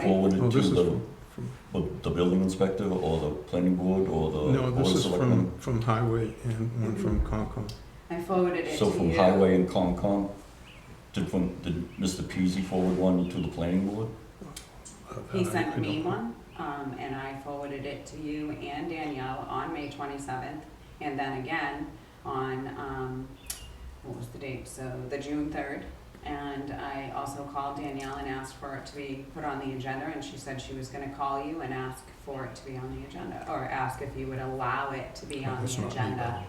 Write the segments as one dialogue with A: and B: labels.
A: forwarded
B: Well,
A: to
B: Oh, this is
A: the,
B: from, from-
A: the- the building inspector or the planning board or the
B: no,
A: board
B: this
A: of
B: is
A: selectmen?
B: from, from Highway and one from
C: Mm-hmm.
B: Concom.
C: I forwarded it to
A: So
C: you.
A: from highway and Concom, did from, did Mr. Peasy forward one to the planning board?
B: Uh,
C: He sent me one, um, and I forwarded it to you and Danielle on May twenty-seventh, and then again on, um, what was the date, so the June third. And I also called Danielle and asked for it to be put on the agenda, and she said she was gonna call you and ask for it to be on the agenda, or ask if you would allow it to be on the agenda.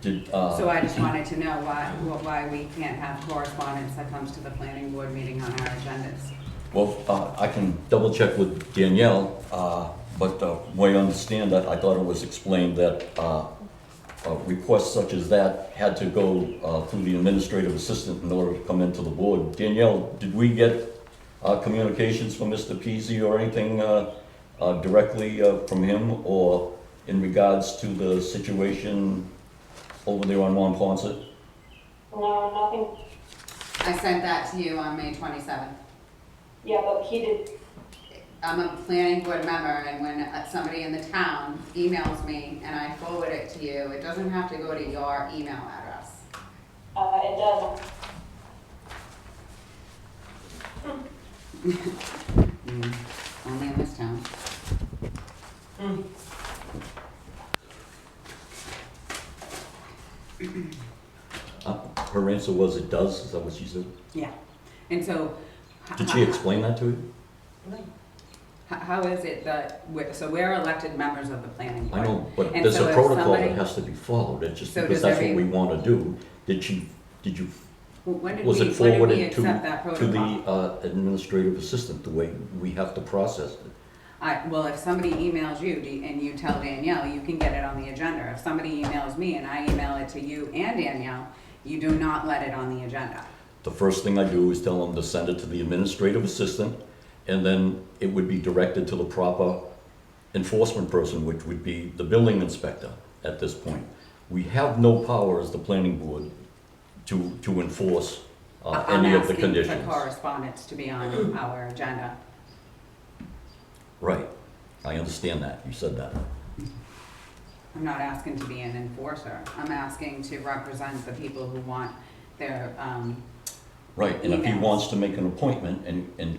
A: Did, uh?
C: So I just wanted to know why, why we can't have correspondence that comes to the planning board meeting on our agendas.
A: Well, uh, I can double check with Danielle, uh, but uh, from what I understand that, I thought it was explained that uh, uh, requests such as that had to go uh, through the administrative assistant in order to come into the board. Danielle, did we get uh, communications from Mr. Peasy or anything uh, uh, directly uh, from him or in regards to the situation over there on Mont Ponce? Uh,
D: No, nothing,
C: I sent that to you on May twenty-seventh.
D: yeah, but he did,
C: I'm a planning board member, and when uh, somebody in the town emails me and I forward it to you, it doesn't have to go to your email address.
D: uh, it doesn't.
C: Mm, Only in this town.
A: Uh, Her answer was it does, is that what she said?
C: Yeah. And so. h-
A: Did she
C: h-
A: explain that to you?
C: h- How is it that, we're- so we're elected members of the planning board?
A: I know, but
C: And
A: there's
C: so
A: a
C: if
A: protocol that
C: somebody-
A: has to be followed, it's just
C: So
A: because
C: does
A: that's what we
C: every-
A: wanna do. Did you, did you,
C: Well, When did we,
A: was it
C: when did we
A: forwarded to,
C: accept that
A: to the
C: protocol?
A: uh, administrative assistant, the way we have to process it?
C: I, well, if somebody emails you do you- and you tell Danielle, you can get it on the agenda. If somebody emails me and I email it to you and Danielle, you do not let it on the agenda.
A: The first thing I do is tell them to send it to the administrative assistant, and then it would be directed to the proper enforcement person, which would be the building inspector at this point. We have no power as the planning board to, to enforce uh,
C: I'm
A: any of the
C: asking for
A: conditions.
C: correspondence to be on our agenda.
A: Right, I understand that, you said that.
C: I'm not asking to be an enforcer. I'm asking to represent the people who want their, um,
A: Right, and if he
C: Emails.
A: wants to make an appointment and, and,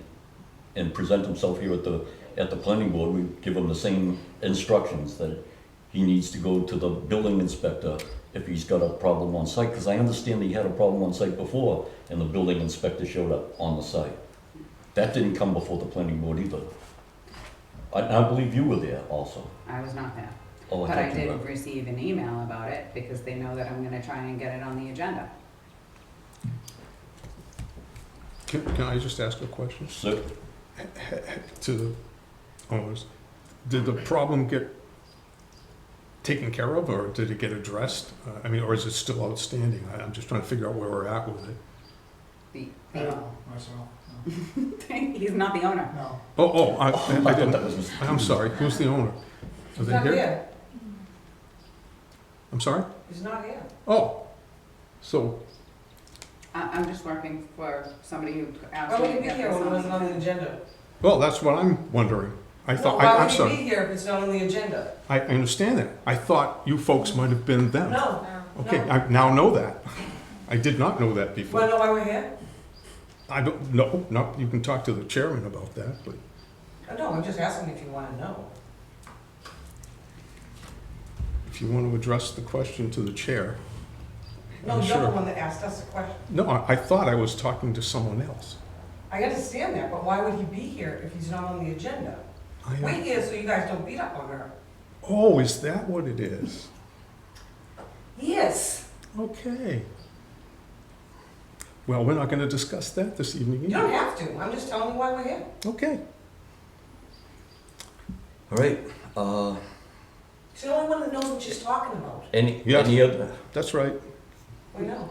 A: and present himself here at the, at the planning board, we give him the same instructions that he needs to go to the building inspector if he's got a problem on site, because I understand he had a problem on site before, and the building inspector showed up on the site. That didn't come before the planning board either. I, I believe you were there also.
C: I was not there.
A: Oh, I
C: But I
A: thought you
C: did
A: were.
C: receive an email about it because they know that I'm gonna try and get it on the agenda.
B: Can, can I just ask a question
A: So,
B: to the owners? Did the problem get taken care of or did it get addressed? Uh, I mean, or is it still outstanding? I, I'm just trying to figure out where we're at with it.
C: The,
E: I
C: the-
E: don't know myself, no.
C: he's not the owner.
E: no.
B: Oh, oh,
A: I
B: I, I
A: thought that
B: didn't,
A: was. Mr.
B: I'm sorry, who's the owner? Are they here? I'm sorry?
E: He's not here.
B: Oh, so,
C: I, I'm just working for somebody who asked
F: Why
C: me to
F: would he be
C: get
F: here
C: this
F: when it
C: on
F: wasn't on
C: the
F: the agenda?
B: well, that's what I'm wondering. I
F: No,
B: thought, I- I'm
F: Why would he
B: sorry,
F: be here if it's not on the agenda?
B: I I understand that. I thought you folks might have been them.
F: No.
B: Okay,
F: No.
B: I now know that. I did not know that
F: Wanna
B: before.
F: know why we're here?
B: I don't, no, no, you can talk to the chairman about that, but,
F: Oh, No, I'm just asking if you wanna know.
B: if you want to address the question to the chair.
F: No,
B: I'm
F: you're the
B: sure.
F: one that asked us the question.
B: No, I, I thought I was talking to someone else.
F: I understand that, but why would he be here if he's not on the agenda?
B: I,
F: Wait here so you guys don't beat up on her.
B: oh, is that what it is?
F: Yes.
B: Okay. Well, we're not going to discuss that this evening
F: You don't
B: either.
F: have to, I'm just telling you why we're here.
B: Okay.
A: All right, uh,
F: She's the only one that knows what she's talking about.
A: any,
B: Yeah.
A: any other?
B: That's right.
F: We know.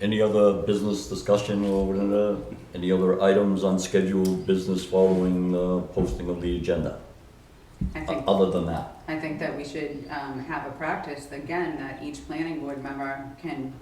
A: Any other business discussion or whatever? any other items on scheduled business following the posting of the agenda?
C: I
A: O-
C: think,
A: Other than that,
C: I think that we should, um, have a practice, again, that each planning board member can